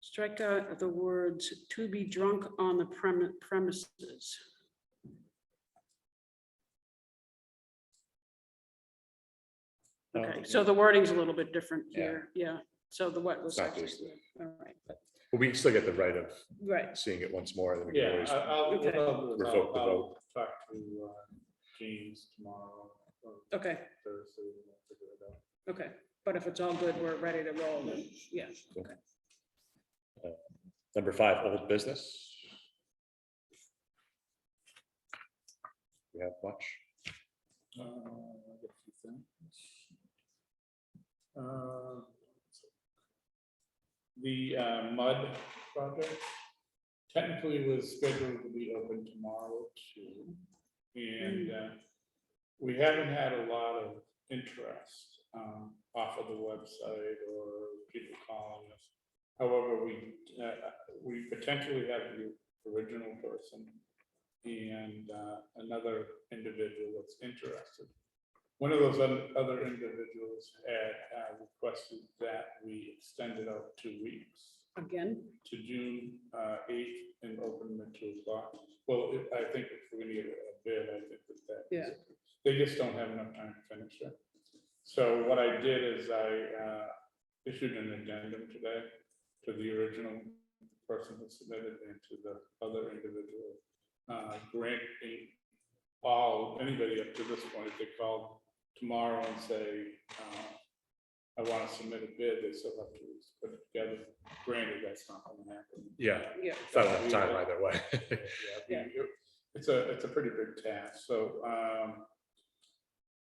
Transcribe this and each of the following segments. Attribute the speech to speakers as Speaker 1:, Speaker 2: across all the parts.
Speaker 1: Strikeout of the words "to be drunk on the premi- premises."
Speaker 2: Oh,
Speaker 1: Okay, so the wording's a little bit different
Speaker 3: Yeah.
Speaker 1: here, yeah, so the what was.
Speaker 3: Not just
Speaker 1: All right, but-
Speaker 3: But We still get the right of
Speaker 1: Right,
Speaker 3: seeing it once more. then we can
Speaker 2: Yeah, uh,
Speaker 3: always-
Speaker 2: I- I'll,
Speaker 1: Okay.
Speaker 2: I'll, I'll
Speaker 3: Revoke the
Speaker 2: I'll
Speaker 3: vote.
Speaker 2: talk to uh, James tomorrow or
Speaker 1: okay,
Speaker 2: Thursday. and we'll figure it out.
Speaker 1: okay, but if it's all good, we're ready to roll, then, yeah, okay.
Speaker 3: Number five, old business. We have much.
Speaker 2: Uh, I got a few things. Uh, The uh, mud project technically was scheduled to be open tomorrow too. And uh, we haven't had a lot of interest um, off of the website or people calling us. However, we, uh, we potentially have the original person and uh, another individual that's interested. One of those other other individuals had uh, requested that we extend it out two weeks
Speaker 1: Again,
Speaker 2: to June uh, eighth and open them at two o'clock. Well, if- I think if we're gonna get a bid, I think that that. is-
Speaker 1: Yeah.
Speaker 2: They just don't have enough time to finish it. So what I did is I uh, issued an addendum today to the original person who submitted and to the other individual. uh, Granting all, anybody up to this point, if they call tomorrow and say, uh, I want to submit a bid, they still have to put it together granted, that's not gonna happen.
Speaker 3: Yeah,
Speaker 1: yeah,
Speaker 3: it's not enough time either way.
Speaker 2: Yeah, we- It's a, it's a pretty big task, so, um,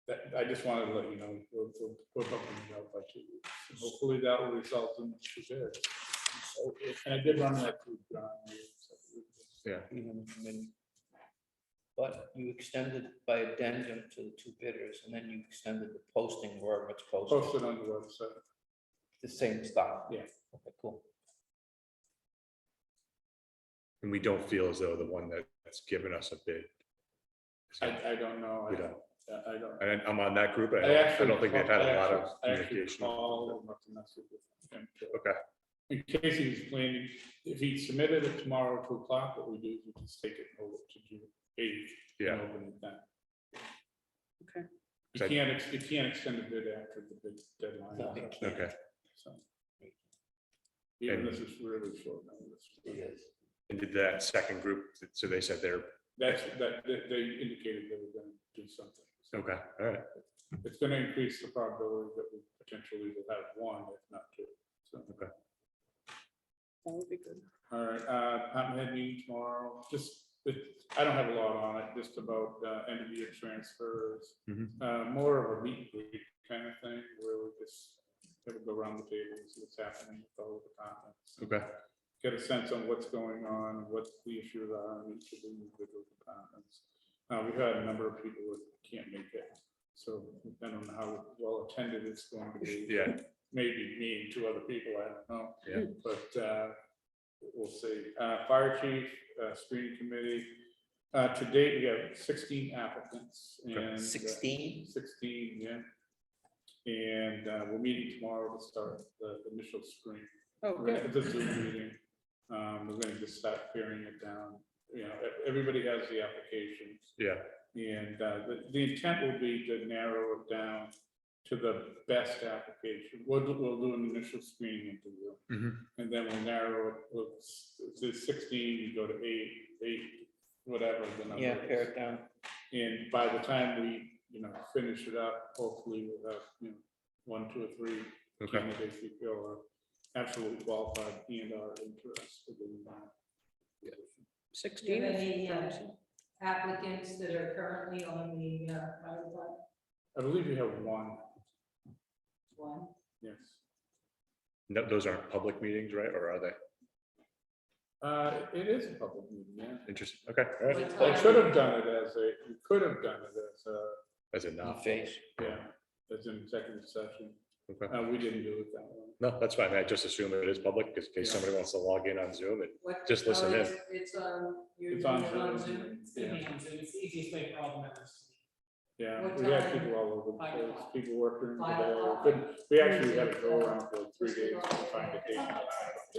Speaker 2: that, I just wanted to let you know, we're, we're- we're bumping it up by two weeks. Hopefully that will result in two bids. So, And I did run that through John.
Speaker 3: Yeah.
Speaker 4: you know, I mean, But you extended by addendum to the two bidders, and then you extended the posting wherever it's posted,
Speaker 2: Posted on the website.
Speaker 4: the same stuff.
Speaker 2: Yeah.
Speaker 4: Okay, cool.
Speaker 3: And we don't feel as though the one that's given us a bid. is gonna-
Speaker 2: I, I don't know. I
Speaker 3: We don't.
Speaker 2: I- I don't.
Speaker 3: And I'm on that group. and I
Speaker 2: I
Speaker 3: don't- I
Speaker 2: actually
Speaker 3: don't think they've had a lot
Speaker 2: called- I
Speaker 3: of
Speaker 2: actually- I actually
Speaker 3: communication.
Speaker 2: called him up and messaged with him to-
Speaker 3: Okay.
Speaker 2: In case he was planning, if he submitted it tomorrow at two o'clock, what we do is we just take it over to June eighth.
Speaker 3: Yeah.
Speaker 1: Okay.
Speaker 2: You can't, ex- you can't extend the bid after the bid deadline.
Speaker 4: No, you can't.
Speaker 3: Okay.
Speaker 2: So. Even
Speaker 3: And-
Speaker 2: this is really short notice.
Speaker 4: Yes.
Speaker 3: And did that second group, so they said they're,
Speaker 2: That's, that, they, they indicated they were gonna do something. So
Speaker 3: okay, all right.
Speaker 2: It's gonna increase the probability that we potentially will have one, if not two. So.
Speaker 1: that would be good.
Speaker 2: All right, uh, I'm heading tomorrow, just, it- I don't have a lot on it, just about, uh, end of year transfers.
Speaker 3: Mhm.
Speaker 2: Uh, more of a meet and greet kind of thing, where we just, kind of go around the table, and see what's happening with all the departments.
Speaker 3: Okay.
Speaker 2: Get a sense on what's going on, what the issues are in each of the individual departments. Uh, we've had a number of people who can't make it, so I don't know how well attended it's going to be
Speaker 3: Yeah,
Speaker 2: maybe me and two other people, I don't know.
Speaker 3: Yeah.
Speaker 2: But uh, we'll see. Uh, Fire chief, uh, screening committee. Uh, To date, we have sixteen applicants and. uh,
Speaker 4: Sixteen,
Speaker 2: Sixteen, yeah. And uh, we're meeting tomorrow to start the initial screen.
Speaker 1: Oh,
Speaker 2: We're gonna
Speaker 1: good,
Speaker 2: have the Zoom meeting. Um, We're gonna just start paring it down. You know, e- everybody has the applications.
Speaker 3: yeah,
Speaker 2: And uh, the, the intent will be to narrow it down to the best application. We'll, do- we'll do an initial screening interview.
Speaker 3: Mhm.
Speaker 2: And then we'll narrow it, we'll, s- to sixteen, you go to eight, eight, whatever the number
Speaker 4: yeah, pare
Speaker 2: is.
Speaker 4: it down.
Speaker 2: And by the time we, you know, finish it up, hopefully we'll have, you know, one, two, or three
Speaker 3: okay,
Speaker 2: candidates we feel are absolutely qualified and are interested in that.
Speaker 1: sixteen.
Speaker 5: Do you have any, uh,
Speaker 1: thousand.
Speaker 5: applicants that are currently on the, uh, private one,
Speaker 2: I believe we have one,
Speaker 5: one,
Speaker 2: yes.
Speaker 3: No, those aren't public meetings, right, or are they?
Speaker 2: Uh, it is a public meeting, yeah.
Speaker 3: Interesting, okay, all right,
Speaker 5: What
Speaker 2: They
Speaker 5: time?
Speaker 2: should have done it as a, you could have done it as a,
Speaker 3: that's
Speaker 4: In
Speaker 3: enough,
Speaker 4: Face.
Speaker 2: yeah, as an executive session.
Speaker 3: okay.
Speaker 2: Uh, we didn't do it that way.
Speaker 3: No, that's fine. I just assume it is public because in case
Speaker 2: Yeah.
Speaker 3: somebody wants to log in on Zoom, it-
Speaker 5: what?
Speaker 3: Just listen
Speaker 5: oh,
Speaker 3: in.
Speaker 5: it's- It's on, you're
Speaker 2: It's on
Speaker 5: doing it on
Speaker 2: Zoom,
Speaker 5: Zoom?
Speaker 2: yeah.
Speaker 6: It's the easiest way for all the members.
Speaker 2: Yeah,
Speaker 5: What
Speaker 2: we had
Speaker 5: time?
Speaker 2: people all over
Speaker 6: Five
Speaker 2: the place,
Speaker 6: o'clock.
Speaker 2: people working
Speaker 5: Five
Speaker 2: today.
Speaker 5: o'clock.
Speaker 2: Couldn't- We actually had to go around for three days to find a date.